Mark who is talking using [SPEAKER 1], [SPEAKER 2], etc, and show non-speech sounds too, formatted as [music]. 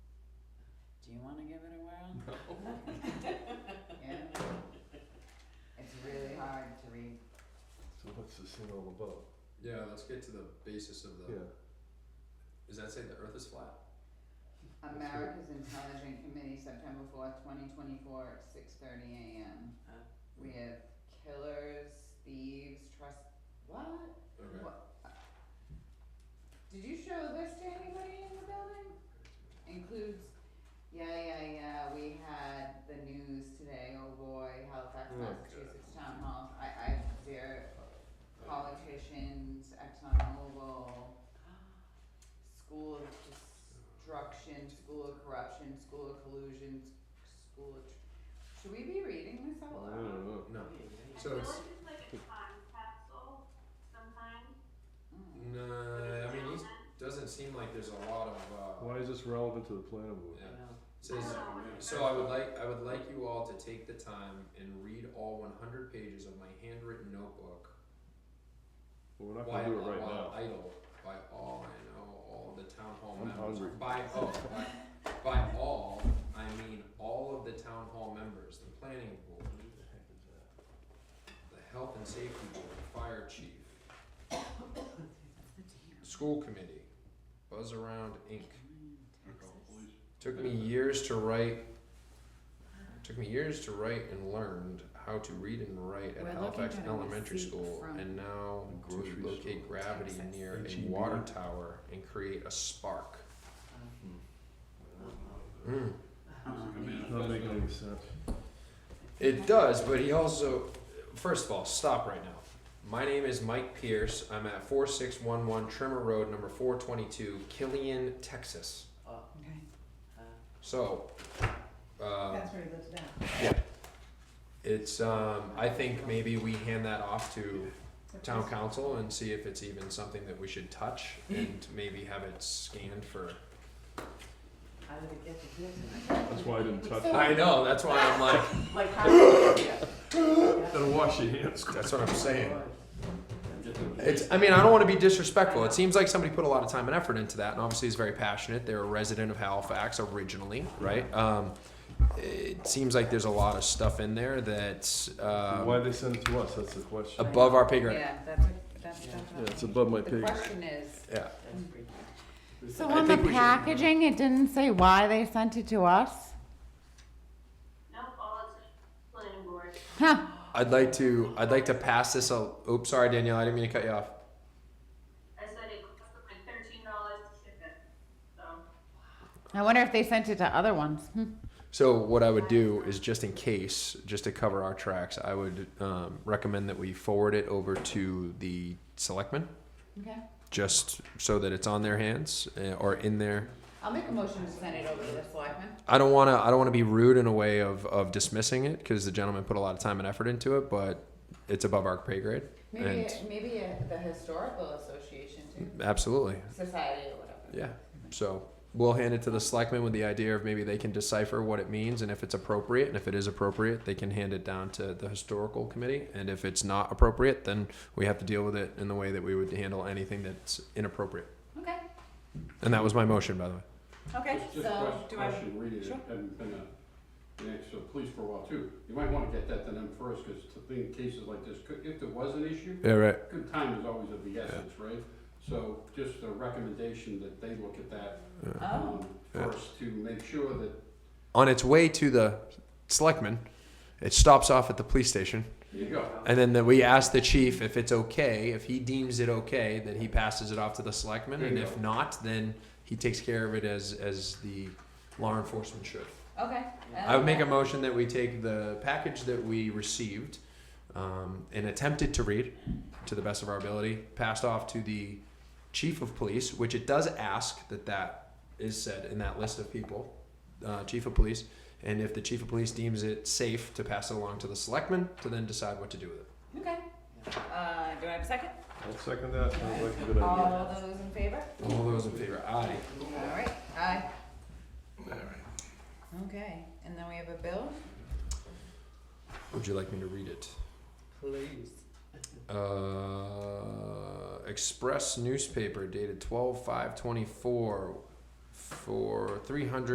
[SPEAKER 1] Do you wanna give it a whirl? [laughs]
[SPEAKER 2] No.
[SPEAKER 1] Yeah? It's really hard to read.
[SPEAKER 3] So what's this thing all about?
[SPEAKER 2] Yeah, let's get to the basis of the,
[SPEAKER 3] Yeah,
[SPEAKER 2] does that say the earth is flat?
[SPEAKER 1] America's Intelligent Committee, September fourth, twenty twenty-four, six thirty AM.
[SPEAKER 4] Uh.
[SPEAKER 1] We have killers, thieves, trust, what?
[SPEAKER 2] Okay.
[SPEAKER 1] What? Did you show this to anybody in the building? Includes, yeah, yeah, yeah, we had the news today, oh boy, Halifax,
[SPEAKER 3] Oh,
[SPEAKER 1] Massachusetts Town Hall, I, I, there, politicians, ExxonMobil, school of destruction, school of corruption, school of collusion, school of, tr- should we be reading this out
[SPEAKER 3] I
[SPEAKER 1] loud?
[SPEAKER 3] don't know.
[SPEAKER 2] No,
[SPEAKER 4] I
[SPEAKER 2] So
[SPEAKER 4] feel
[SPEAKER 2] it's-
[SPEAKER 4] like it's like a time capsule sometimes.
[SPEAKER 1] Mm.
[SPEAKER 2] no, Uh, I mean, it doesn't seem like there's a lot of, uh,
[SPEAKER 3] Why is this relevant to the planning board?
[SPEAKER 2] yeah.
[SPEAKER 5] know.
[SPEAKER 2] It Says, So I would like I would like you all to take the time and read all 100 pages of my handwritten notebook.
[SPEAKER 3] Well, we're not
[SPEAKER 2] While,
[SPEAKER 3] gonna do it right
[SPEAKER 2] while
[SPEAKER 3] now.
[SPEAKER 2] idle by all I know all the town hall
[SPEAKER 3] I'm
[SPEAKER 2] members.
[SPEAKER 3] hungry.
[SPEAKER 2] By oh by, by all I mean all of the town hall members, the planning board, the health and safety board, fire chief, school committee, Buzz Around Inc. Took me years to write. Took me years to write and learned how to read and write at
[SPEAKER 6] We're looking
[SPEAKER 2] Halifax
[SPEAKER 6] at a
[SPEAKER 2] Elementary
[SPEAKER 6] receipt
[SPEAKER 2] School,
[SPEAKER 6] from
[SPEAKER 2] and now to
[SPEAKER 3] grocery
[SPEAKER 2] locate
[SPEAKER 3] store. E
[SPEAKER 2] gravity
[SPEAKER 6] Texas.
[SPEAKER 2] near a
[SPEAKER 3] H-E-B.
[SPEAKER 2] water tower and create a spark. Mm.
[SPEAKER 3] Not making any sense.
[SPEAKER 2] It does, but he also, first of all, stop right now. My name is Mike Pierce. I'm at 4611 Trimmer Road, number 422, Killian, Texas.
[SPEAKER 5] Uh,
[SPEAKER 6] Okay,
[SPEAKER 5] uh,
[SPEAKER 2] So, uh,
[SPEAKER 6] that's where he lives now.
[SPEAKER 2] it's, um, I think maybe we hand that off to Hmm. town
[SPEAKER 1] Uh-huh.
[SPEAKER 5] Uh,
[SPEAKER 2] council and see if it's even something that we should touch and maybe have it scanned for.
[SPEAKER 5] I would have guessed it is.
[SPEAKER 3] That's why I didn't touch it.
[SPEAKER 2] I know, that's why I'm like,
[SPEAKER 5] Like how? yeah.
[SPEAKER 3] Gotta wash your hands.
[SPEAKER 2] that's what I'm saying. It's, I mean, I don't want to be disrespectful. It seems like somebody put a lot of time and effort into that, and obviously is very passionate. They're a resident of Halifax originally, right? Um, it seems like there's a lot of stuff in there that's
[SPEAKER 3] Why
[SPEAKER 2] um, uh,
[SPEAKER 3] they send it to us, that's the question.
[SPEAKER 2] above our pay grade.
[SPEAKER 1] Yeah, that's, what- that's,
[SPEAKER 5] Yeah.
[SPEAKER 1] that's.
[SPEAKER 3] Yeah,
[SPEAKER 1] what-
[SPEAKER 3] it's above my
[SPEAKER 1] The
[SPEAKER 3] pay grade.
[SPEAKER 1] question is,
[SPEAKER 2] Yeah.
[SPEAKER 5] That's pretty good.
[SPEAKER 1] so
[SPEAKER 2] I
[SPEAKER 1] on the
[SPEAKER 2] think we should-
[SPEAKER 1] packaging, it didn't say why they sent it to us?
[SPEAKER 4] Nope, all it's planning board.
[SPEAKER 1] Huh,
[SPEAKER 2] I'd like to. I'd like to pass this. Al- Oops, sorry, Danielle. I didn't mean to cut you off.
[SPEAKER 4] I said it cost like thirteen dollars to ship it, so.
[SPEAKER 1] I wonder if they sent it to other ones. Hmm.
[SPEAKER 2] So what I would do is, just in case, just to cover our tracks, I would um, recommend that we forward it over to the selectmen,
[SPEAKER 1] Okay,
[SPEAKER 2] just so that it's on their hands uh, or in their.
[SPEAKER 1] I'll make a motion to send it over to the selectmen.
[SPEAKER 2] I don't want to. I don't want to be rude in a way of of dismissing it because the gentleman put a lot of time and effort into it, but it's above our pay grade.
[SPEAKER 1] Maybe,
[SPEAKER 2] And-
[SPEAKER 1] maybe uh, the historical association too,
[SPEAKER 2] Absolutely.
[SPEAKER 1] society or whatever.
[SPEAKER 2] Yeah. So we'll hand it to the selectmen with the idea of maybe they can decipher what it means and if it's appropriate. And if it is appropriate, they can hand it down to the historical committee. And if it's not appropriate, then we have to deal with it in the way that we would handle anything that's inappropriate.
[SPEAKER 1] Okay,
[SPEAKER 2] And that was my motion, by the way.
[SPEAKER 1] okay,
[SPEAKER 7] Just
[SPEAKER 1] so
[SPEAKER 7] a
[SPEAKER 1] do I?
[SPEAKER 7] question, read it,
[SPEAKER 1] Sure.
[SPEAKER 7] it hadn't been a, an actual police for a while too. You might wanna get that to them first, cause to think cases like this, could, if there was an issue,
[SPEAKER 2] Yeah, right.
[SPEAKER 7] good time is always of the essence, right? So just a recommendation that they look at that,
[SPEAKER 1] Oh,
[SPEAKER 7] um, first to make sure that,
[SPEAKER 2] On its way to the selectmen, it stops off at the police station.
[SPEAKER 7] there you go.
[SPEAKER 2] And then that we ask the chief if it's okay, if he deems it okay, then he passes it off to the selectmen, and if not, then he takes care of it as as the law enforcement should.
[SPEAKER 1] okay.
[SPEAKER 2] I would make a
[SPEAKER 1] okay.
[SPEAKER 2] motion that we take the package that we received um, and attempted to read to the best of our ability, passed off to the chief of police, which it does ask that that is said in that list of people, uh, chief of police. And if the chief of police deems it safe to pass it along to the selectmen to then decide what to do with it.
[SPEAKER 1] Okay, uh, do I have a second?
[SPEAKER 3] I'll second that, sounds like a good idea.
[SPEAKER 1] All those in favor?
[SPEAKER 2] All those in favor, aye.
[SPEAKER 1] All right, aye. Okay, and then we have a bill?
[SPEAKER 2] Would you like me to read it?
[SPEAKER 5] Please.
[SPEAKER 2] Uh, Express newspaper dated twelve five twenty four for three hundred.